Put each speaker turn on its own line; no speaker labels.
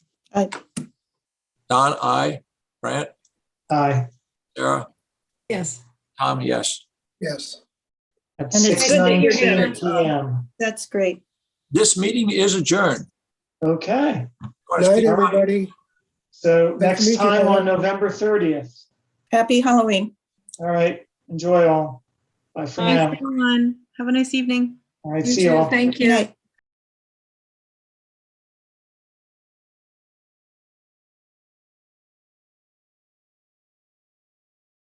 Aye.
Don, I, Brant,
Aye.
Sarah,
Yes.
Tom, yes.
Yes.
At
And it's
six
good that
you're
nineteen
here.
PM.
That's great.
This meeting is adjourned.
Okay,
Night, everybody.
so
to meet
next
you,
time
Donna.
on November thirtieth.
Happy Halloween.
All right, enjoy all. Bye for
Thanks,
now.
everyone. Have a nice evening.
All right,
You
see you
too.
all.
Thank
Good
you.
night.